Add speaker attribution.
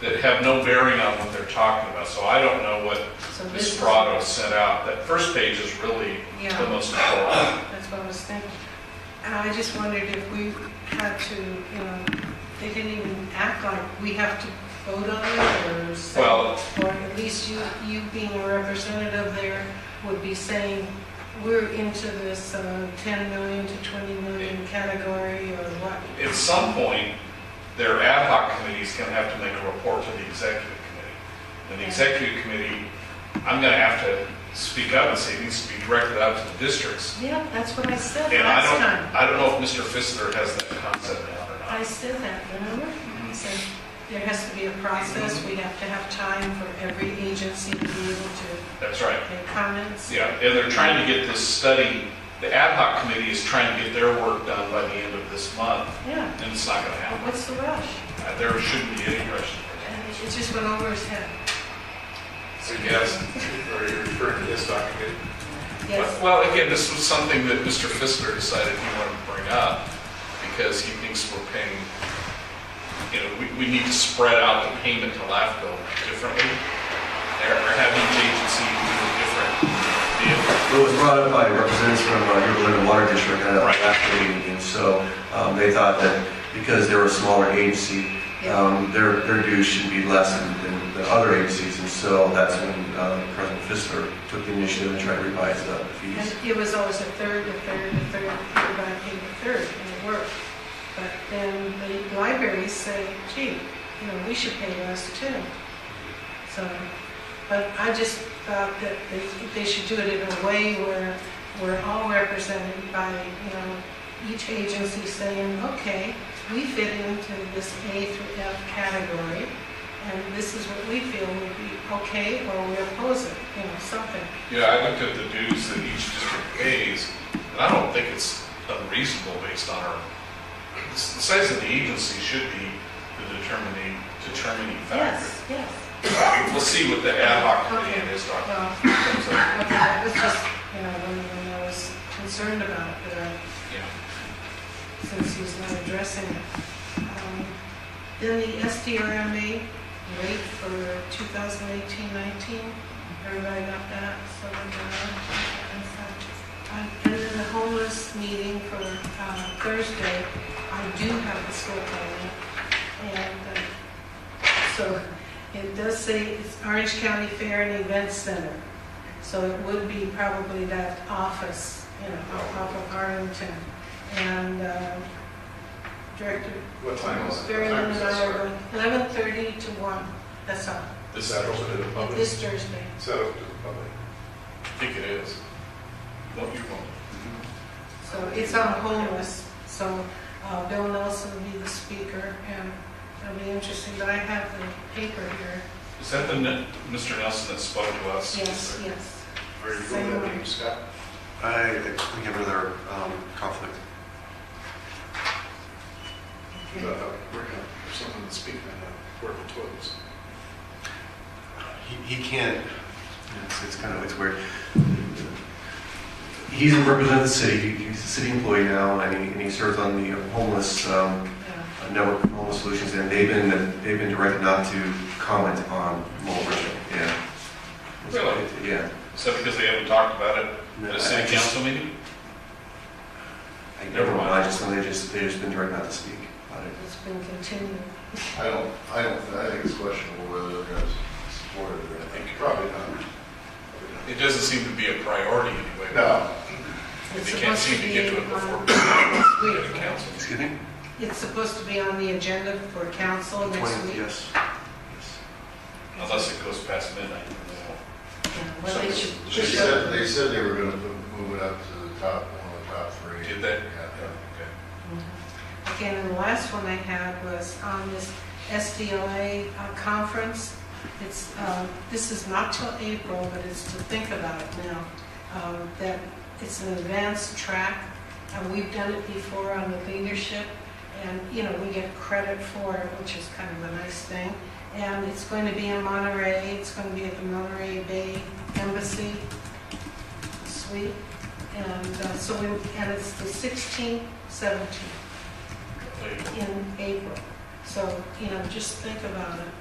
Speaker 1: that have no bearing on what they're talking about. So I don't know what
Speaker 2: So this
Speaker 1: Ms.
Speaker 2: is-
Speaker 1: Prado sent out. That first page is really
Speaker 2: Yeah.
Speaker 1: the most important.
Speaker 2: That's what I was thinking. And I just wondered if we had to, you know, they didn't even act like we have to vote on it or say,
Speaker 1: Well-
Speaker 2: or at least you, you being a representative there would be saying, we're into this uh, 10 million to 20 million category or what?
Speaker 1: At some point, their ad hoc committee is going to have to make a report to the executive committee. And the executive committee, I'm going to have to speak up and say it needs to be directed out to the districts.
Speaker 2: Yeah, that's what I said
Speaker 1: And I
Speaker 2: last
Speaker 1: don't,
Speaker 2: time.
Speaker 1: I don't know if Mr. Fissler has that concept now or
Speaker 2: I
Speaker 1: not.
Speaker 2: said that, remember?
Speaker 1: Mm-hmm.
Speaker 2: I said, there has to be a process, we have to have time for every agency to be able to
Speaker 1: That's right.
Speaker 2: make comments.
Speaker 1: Yeah, and they're trying to get this study, the ad hoc committee is trying to get their work done by the end of this month,
Speaker 2: Yeah.
Speaker 1: and it's not gonna happen.
Speaker 2: What's the rush?
Speaker 1: Uh, There shouldn't be any rush.
Speaker 2: And It it just went over his head.
Speaker 1: So yes.
Speaker 3: Are you referring to this document?
Speaker 2: Yes,
Speaker 1: Well, again, this was something that Mr. Fissler decided he wanted to bring up, because he thinks we're paying, you know, we, we need to spread out the payment to LAFCO differently. They're they're having each agency do a different deal.
Speaker 4: It was brought up by representatives from uh, River Lynn Water District at a
Speaker 1: Right.
Speaker 4: faculty meeting, so um, they thought that because they're a smaller agency, um, their their dues should be less than- than the other agencies, and so that's when uh, President Fisler took the initiative and tried to revise the fees.
Speaker 2: and it was always a third, a third, a third, everybody paid a third, and it worked. But then the libraries say, gee, you know, we should pay less too. So, but I just thought that they- they should do it in a way where we're all represented by, you know, each agency saying, okay, we fit into this A through F category, and this is what we feel would be okay, or we oppose it, you know, something.
Speaker 1: Yeah, I looked at the dues that each district pays, and I don't think it's unreasonable based on our, the size of the agency should be the determining, determining factor.
Speaker 2: Yes, yes.
Speaker 1: We'll see what the ad hoc committee and his document
Speaker 2: Well,
Speaker 1: comes up.
Speaker 2: okay, that was just, you know, one thing I was concerned about, but I
Speaker 1: Yeah.
Speaker 2: since he's not addressing it. Um, Then the SDRMA rate for 2018-19, everybody got that? So, uh, And then the homeless meeting for uh, Thursday, I do have the school calendar. And uh, so it does say it's Orange County Fair and Event Center. So it would be probably that office, you know, off of Arlington. And uh, Director
Speaker 3: What time is it?
Speaker 2: Very
Speaker 3: What time is
Speaker 2: limited
Speaker 3: this?
Speaker 2: hour, eleven thirty to one, that's all,
Speaker 3: Is that open to the public? Is
Speaker 2: this Thursday.
Speaker 3: that open to the public?
Speaker 1: I think it is. Don't you wrong.
Speaker 2: So it's on homeless, so uh, Bill Nelson will be the speaker, and it'll be interesting, but I have the paper here.
Speaker 1: Is that the, ne- Mr. Nelson that spoke to us?
Speaker 2: Yes, yes.
Speaker 3: Are you going to that meeting, Scott?
Speaker 4: I think another um, conflict.
Speaker 3: Uh, We're gonna, there's someone that's speaking on that, Board of Twins.
Speaker 4: He he can't, it's, it's kind of, it's weird. He's a representative of the city, he's a city employee now, and he, and he serves on the homeless, um,
Speaker 2: Yeah.
Speaker 4: network of homeless solutions, and they've been, they've been directed not to comment on mobile Bridging, yeah.
Speaker 1: Really?
Speaker 4: Yeah.
Speaker 1: Is that because they haven't talked about it at a
Speaker 4: I
Speaker 1: city
Speaker 4: just-
Speaker 1: council meeting?
Speaker 4: I
Speaker 1: Never
Speaker 4: never
Speaker 1: mind.
Speaker 4: mind, I just, they just, they've just been directed not to speak about it.
Speaker 2: It's been continued.
Speaker 5: I don't, I don't, I think it's questionable whether they're gonna support it or
Speaker 3: I
Speaker 5: anything.
Speaker 3: think probably not. Probably not.
Speaker 1: It doesn't seem to be a priority anyway.
Speaker 5: No,
Speaker 2: It's
Speaker 1: They can't
Speaker 2: supposed
Speaker 1: seem to get to it
Speaker 2: be
Speaker 1: before
Speaker 2: on-
Speaker 1: next
Speaker 2: week, right?
Speaker 1: council.
Speaker 4: Excuse me?
Speaker 2: It's supposed to be on the agenda for council Oh, next
Speaker 4: 20th,
Speaker 2: week.
Speaker 4: Yes. Yes.
Speaker 1: Unless it goes past midnight.
Speaker 2: Yeah, Well, they should.
Speaker 5: they said, they said they were gonna put- move it up to the top, one of the top three.
Speaker 1: Did they?
Speaker 5: Yeah.
Speaker 1: Okay.
Speaker 2: Again, and the last one I had was on this SDLA uh, conference. It's, uh, this is not till April, but it's to think about it now, um, that it's an advanced track, and we've done it before on the leadership, and, you know, we get credit for it, which is kind of a nice thing. And it's going to be in Monterey, it's going to be at the Monterey Bay Embassy Suite, and uh, so, we and it's the 16th, 17th
Speaker 1: There you go.
Speaker 2: in April. So, you know, just think about it.